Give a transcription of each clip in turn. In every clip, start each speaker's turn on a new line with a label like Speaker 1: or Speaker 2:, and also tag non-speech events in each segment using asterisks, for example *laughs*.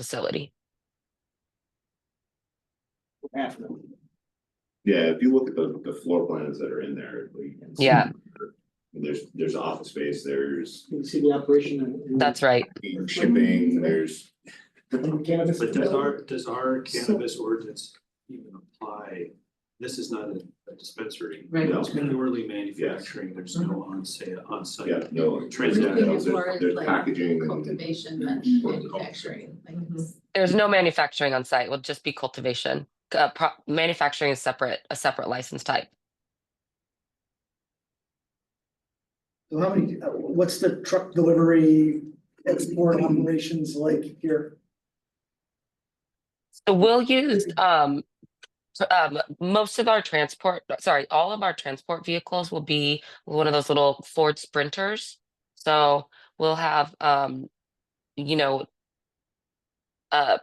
Speaker 1: facility.
Speaker 2: Yeah, if you look at the, the floor plans that are in there. like, you can see-
Speaker 1: Yeah.
Speaker 2: There's, there's office space, there's
Speaker 3: You can see the operation and. and-
Speaker 1: That's right.
Speaker 2: shipping, there's.
Speaker 3: and Cannabis.
Speaker 4: But does our, does our cannabis ordinance even apply? This is not a a dispensary.
Speaker 5: Right.
Speaker 4: It's purely manufacturing, there's no
Speaker 3: Uh-huh.
Speaker 4: on
Speaker 2: Yeah,
Speaker 4: onsite.
Speaker 2: no.
Speaker 5: Everything
Speaker 2: Transactions,
Speaker 5: as far
Speaker 2: there's,
Speaker 5: as,
Speaker 2: there's
Speaker 5: like,
Speaker 3: Mm-hmm.
Speaker 2: packaging and
Speaker 5: cultivation and manufacturing, like it's.
Speaker 1: There's no manufacturing on site. Will just be cultivation. Uh, pro- manufacturing is separate, a separate license type.
Speaker 6: So How many, uh, what's the truck delivery export operations like here?
Speaker 1: So we'll use, um, t- um, most of our transport, sorry, all of our transport vehicles will be one of those little Ford Sprinters. So we'll have, um, you know, uh,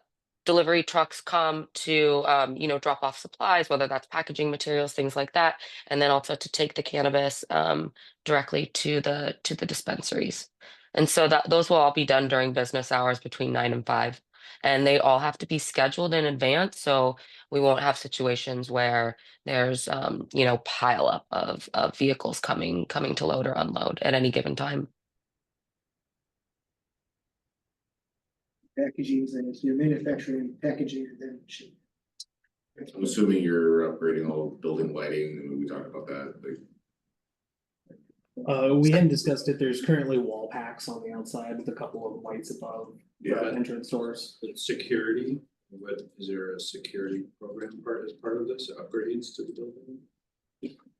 Speaker 1: delivery trucks come to, um, you know, drop off supplies, whether that's packaging materials, things like that. And then also to take the cannabis, um, directly to the, to the dispensaries. And so that, those will all be done during business hours between nine and five and they all have to be scheduled in advance so we won't have situations where there's um you know pile up of of vehicles coming coming to load or unload at any given time
Speaker 6: Packaging things, your manufacturing, packaging, and then ship.
Speaker 2: I'm assuming you're upgrading all building lighting, and we talked about that, like.
Speaker 7: Uh, we hadn't discussed it, there's currently wall packs on the outside with a couple of lights above
Speaker 2: Yeah,
Speaker 7: the entrance doors.
Speaker 4: But Security, what, is there a security program part as part of this, upgrades to the building?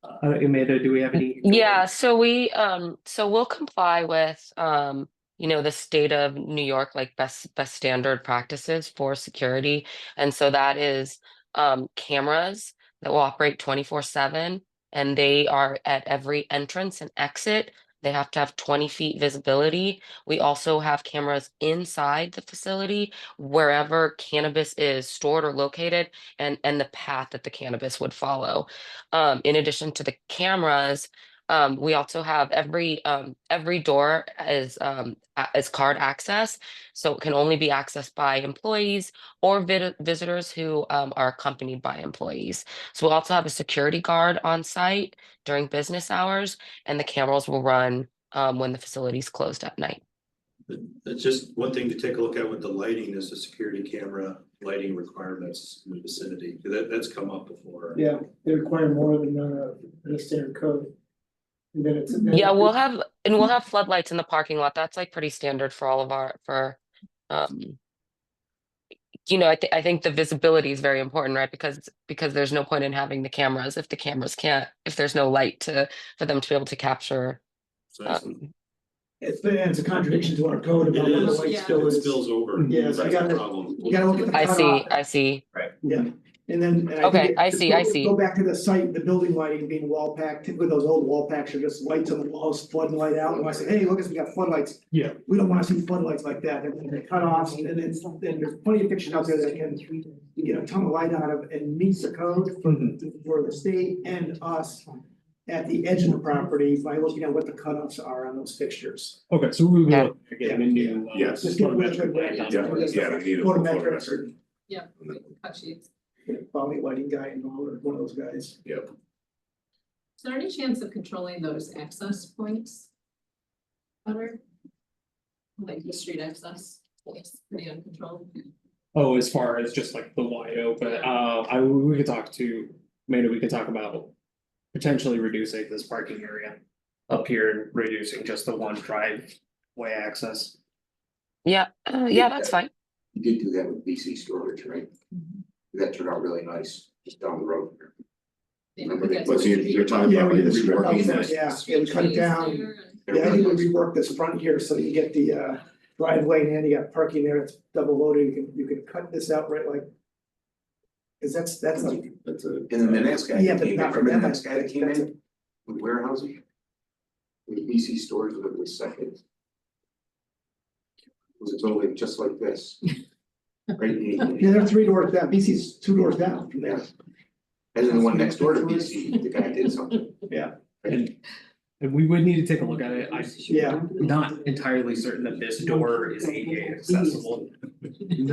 Speaker 7: Uh, Amanda, do we have any?
Speaker 1: yeah so we um so we'll comply with um you know the state of new york like best best standard practices for security and so that is um cameras that will operate 24 7 and they are at every entrance and exit they have to have 20 feet visibility we also have cameras inside the facility wherever cannabis is stored or located and and the path that the cannabis would follow um, in addition to the cameras um, we also have every um, every door is um, a- is card access, so it can only be accessed by employees or vid- visitors who um, are accompanied by employees. So we also have a security guard on site during business hours, and the cameras will run um, when the facility is closed at night.
Speaker 4: That's just one thing to take a look at with the lighting is the security camera lighting requirements in the vicinity, that, that's come up before.
Speaker 3: Yeah, they require more than uh the standard code. And then it's.
Speaker 1: Yeah, we'll have and we'll have floodlights in the parking lot. That's like pretty standard for all of our for um you know, I think I think the visibility is very important, right? Because because there's no point in having the cameras if the cameras can't if there's no light to for them to be able to capture
Speaker 2: so it's-
Speaker 3: Uh,
Speaker 1: um
Speaker 3: It's been, it's a contradiction to our code about
Speaker 4: It
Speaker 3: what the
Speaker 4: is,
Speaker 3: light
Speaker 5: yeah.
Speaker 3: spill
Speaker 4: it
Speaker 3: is.
Speaker 4: spills over.
Speaker 3: Yeah, so
Speaker 2: we
Speaker 4: That's
Speaker 3: gotta-
Speaker 4: the problem.
Speaker 3: You gotta look at the.
Speaker 1: I see,
Speaker 3: cutoff.
Speaker 1: I see.
Speaker 3: Yeah, and then. and think
Speaker 1: Okay,
Speaker 3: it-
Speaker 1: I
Speaker 3: just
Speaker 1: see, I
Speaker 3: go-
Speaker 1: see.
Speaker 3: Go back to the site, the building lighting being wall packed, typically those old wall packs are just lights on the walls, flooding light out, and I say, hey, look, we got floodlights.
Speaker 7: Yeah.
Speaker 3: We don't wanna see floodlights like that, they're they're cut off, and then it's, and there's plenty of fiction out there that can, you get a ton of light out of and meets the code for the state and us at the edge of the property by looking at what the cutoffs are on those fixtures.
Speaker 7: Okay, so we
Speaker 1: Yeah.
Speaker 7: will get a new. uh,
Speaker 2: Yes.
Speaker 3: Just get rid of it.
Speaker 2: Yeah, yeah, I need a full
Speaker 3: Photometrics
Speaker 2: photometric.
Speaker 3: and get a quality lighting guy involved or one of those guys.
Speaker 2: Yep,
Speaker 5: Is there any chance of controlling those access points? Better? Like the street access, it's pretty uncontrolled.
Speaker 7: Oh, as far as just like the wide open, uh, I, we could talk to, Amanda, we could talk about. Potentially reducing this parking area up here and reducing just the one driveway access.
Speaker 1: Yeah, uh, yeah, that's fine.
Speaker 8: You did do that with BC storage, right? That turned out really nice, just down the road.
Speaker 5: Yeah,
Speaker 8: Remember they-
Speaker 5: because
Speaker 2: but
Speaker 5: the
Speaker 2: so you're,
Speaker 5: street-
Speaker 2: you're talking
Speaker 3: Yeah,
Speaker 2: about
Speaker 3: we
Speaker 2: like
Speaker 3: did
Speaker 2: the
Speaker 3: street
Speaker 2: reworking
Speaker 3: lights,
Speaker 2: this.
Speaker 3: yeah.
Speaker 5: street
Speaker 3: we cut it
Speaker 5: trees
Speaker 3: down.
Speaker 5: there and-
Speaker 8: They're
Speaker 3: Yeah, I
Speaker 8: really
Speaker 3: think
Speaker 8: nice.
Speaker 3: we rework this front here, so you get the uh driveway and you got parking there, it's double loaded, you can, you can cut this out right like. Cause that's, that's a,
Speaker 2: That's a.
Speaker 8: And then the next guy
Speaker 3: yeah,
Speaker 8: that
Speaker 3: but
Speaker 8: came in,
Speaker 3: not for
Speaker 8: remember the
Speaker 3: them,
Speaker 8: next guy that came
Speaker 3: that's a-
Speaker 8: in with warehousing? With E BC storage, whatever it was second. It was totally just like
Speaker 3: *laughs*
Speaker 8: this. Right?
Speaker 3: Yeah,
Speaker 8: And
Speaker 3: they're three doors down, BC's two doors down from
Speaker 8: E
Speaker 3: there.
Speaker 8: then the one next door to BC, the guy did something.
Speaker 3: Yeah.
Speaker 8: Right?
Speaker 7: And we would need to take a look at it, I'm
Speaker 3: Yeah.
Speaker 7: not entirely certain that this door is ADA accessible. The